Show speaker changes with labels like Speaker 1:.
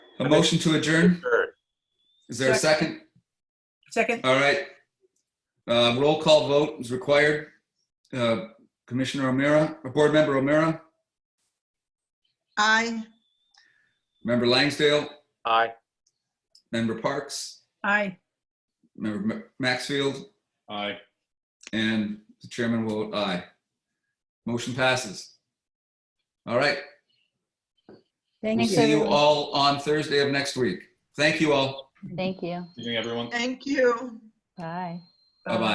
Speaker 1: A motion to adjourn?
Speaker 2: Sure.
Speaker 1: Is there a second?
Speaker 3: Second,
Speaker 1: All right. Uh, Roll call vote is required. Uh, Commissioner O'Meara, or Board Member O'Meara,
Speaker 4: Aye.
Speaker 1: Member Langsdale,
Speaker 2: Aye.
Speaker 1: Member Parks,
Speaker 3: aye.
Speaker 1: Member Ma- Maxfield,
Speaker 2: Aye.
Speaker 1: and the chairman will vote aye. Motion passes. All right. We'll
Speaker 5: Thank
Speaker 1: see you
Speaker 5: you.
Speaker 1: all on Thursday of next week. Thank you all.
Speaker 5: Thank you.
Speaker 2: Good evening, everyone.
Speaker 4: Thank you.
Speaker 5: Bye.
Speaker 1: Bye-bye.